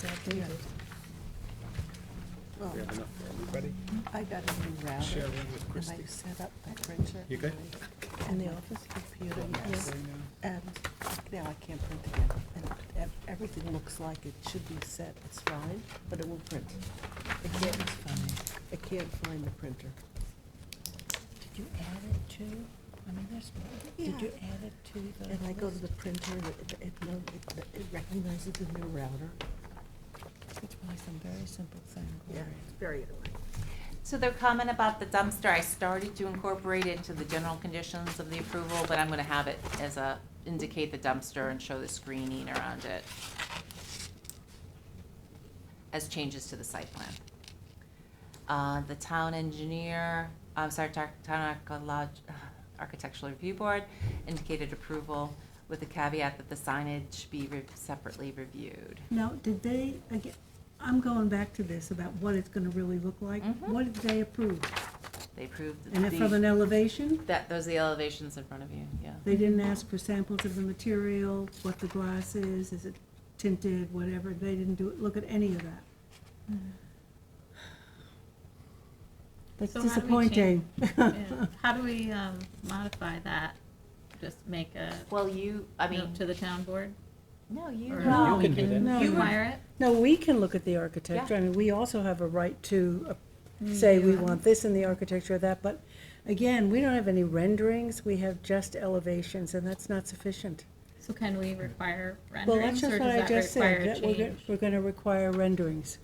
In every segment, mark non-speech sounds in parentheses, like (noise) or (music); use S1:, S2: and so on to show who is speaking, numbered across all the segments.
S1: There you go.
S2: We have
S1: Well,
S2: enough for everybody?
S1: I got a new router,
S2: Share
S1: and
S2: one with
S1: I
S2: Christie.
S1: set up my printer.
S2: You good?
S1: And the office computer, yes,
S2: Right now?
S1: and now I can't print again. And ev- everything looks like it should be set, it's fine, but it won't print.
S3: The kitten's funny.
S1: I can't find the printer.
S3: Did you add it to, I mean, there's, did you add it to the
S1: And I go to
S3: list?
S1: the printer, and it, it, no- it- it recognizes the new router.
S3: It's probably some very simple thing, Gloria.
S1: very annoying.
S4: So their comment about the dumpster, I started to incorporate into the general conditions of the approval, but I'm gonna have it as a, indicate the dumpster and show the screening around it as changes to the site plan. Uh, the town engineer, I'm sorry, tar- town archeolog- architectural review board indicated approval with the caveat that the signage be re- separately reviewed.
S5: Now, did they, again, I'm going back to this about what it's gonna really look like.
S6: Mm-hmm.
S4: Mhm.
S5: What did they approve?
S4: They approved
S5: And if from an
S4: the,
S5: elevation,
S4: that, those are the elevations in front of you, yeah.
S5: they didn't ask for samples of the material, what the glass is, is it tinted, whatever, they didn't do, look at any of that.
S6: Hmm.
S5: That's
S6: So how do we
S5: disappointing.
S6: Yeah. How do we um, modify that? Just make a
S4: Well, you, I mean.
S6: note to the town board?
S4: No, you. uh,
S6: Or-
S5: No,
S2: You can do that.
S5: no,
S6: You
S5: no.
S6: Require
S5: No, we can look at the architecture, I mean, we also have a right to uh,
S6: Mm,
S5: say we
S6: Yeah.
S5: want this in the architecture of that, but again, we don't have any renderings, we have just elevations, and that's not sufficient.
S6: it? So can we require
S5: Well, that's
S6: renderings or
S5: just what I
S6: does that
S5: just
S6: require
S5: said,
S6: a
S5: that we're, go-
S6: change?
S5: we're gonna require renderings.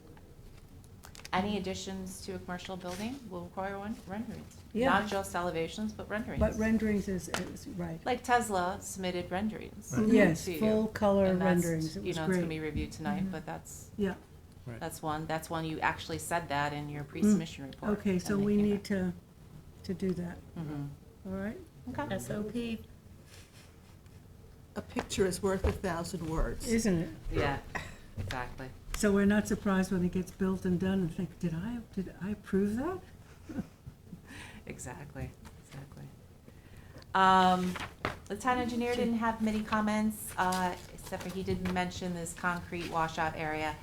S4: Any additions to a commercial building will require one, renderings.
S5: Yeah.
S4: Not just elevations, but renderings.
S5: But renderings is, is, right,
S4: Like Tesla submitted renderings.
S5: Right. Yes,
S4: to you,
S5: full color
S4: and that's-
S5: renderings. It
S4: You
S5: was
S4: know, it's gonna
S5: great. Mm-hmm.
S4: be reviewed tonight,
S6: Mhm.
S4: but that's,
S5: yeah, Mm.
S4: that's one, that's one you actually said that in your pre-submission report.
S5: okay, so
S4: and they
S5: we
S4: came
S5: need
S4: back.
S5: to, to do that,
S4: Mhm.
S5: all right?
S4: Okay.
S6: SOP
S1: (laughs) A picture is worth a thousand words.
S5: Isn't it?
S4: Yeah, exactly.
S5: So we're not surprised when it gets built and done and think, did I, did I approve that?
S4: Exactly, exactly. Um, the town engineer didn't have many comments, uh, except for he did mention this concrete washout area.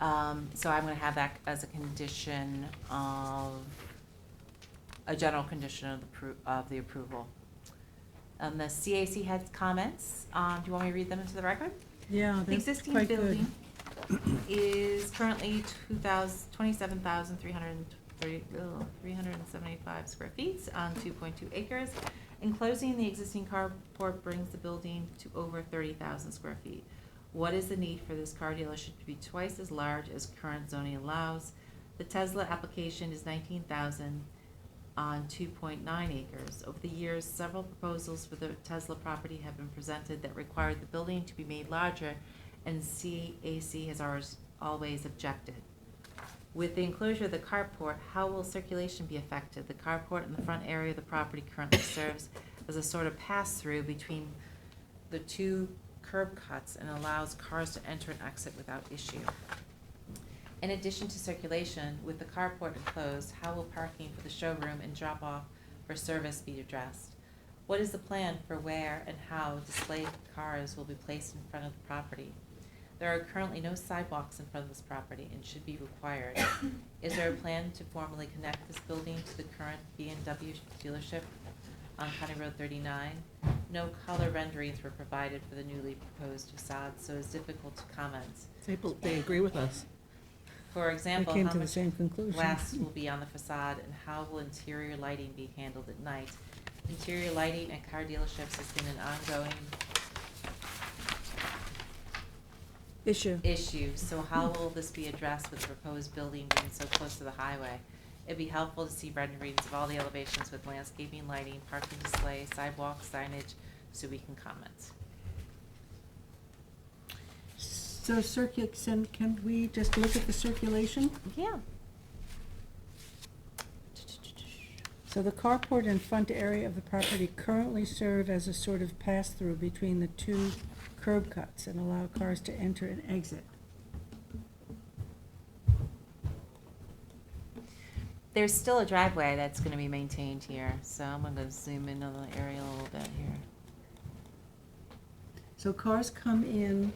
S4: Um, so I'm gonna have that as a condition of, a general condition of the pro- of the approval. Um, the CAC had comments, um, do you want me to read them into the record?
S5: Yeah,
S4: The
S5: that's
S4: existing
S5: quite good.
S4: building is currently two thousand, twenty-seven thousand, three hundred and thirty, three hundred and seventy-five square feet on two point two acres. Enclosing the existing carport brings the building to over thirty thousand square feet. What is the need for this car dealership to be twice as large as current zoning allows? The Tesla application is nineteen thousand on two point nine acres. Over the years, several proposals for the Tesla property have been presented that required the building to be made larger, and CAC has ours- always objected. With the enclosure of the carport, how will circulation be affected? The carport in the front area of the property currently (coughs) serves as a sort of pass-through between the two curb cuts and allows cars to enter and exit without issue. In addition to circulation, with the carport enclosed, how will parking for the showroom and drop-off for service be addressed? What is the plan for where and how displayed cars will be placed in front of the property? There are currently no sidewalks in front of this property and should be required. Is there a plan to formally connect this building to the current B and W dealership on County Road thirty-nine? No color renderings were provided for the newly proposed facade, so it's difficult to comment.
S1: They, bel- they agree with us.
S4: For
S5: I
S4: example,
S5: came
S4: how
S5: to the
S4: much
S5: same conclusion.
S4: glass will be on the facade and how will interior lighting be handled at night? Interior lighting at car dealerships has been an ongoing
S5: Issue.
S4: issue, so how will this be addressed with the proposed building being so close to the highway? It'd be helpful to see renderings of all the elevations with landscaping, lighting, parking display, sidewalk signage, so we can comment.
S5: So circuit, can, can we just look at the circulation?
S4: Yeah.
S5: So the carport and front area of the property currently serve as a sort of pass-through between the two curb cuts and allow cars to enter and exit.
S4: There's still a driveway that's gonna be maintained here, so I'm gonna zoom in on the area a little bit here.
S5: So cars come in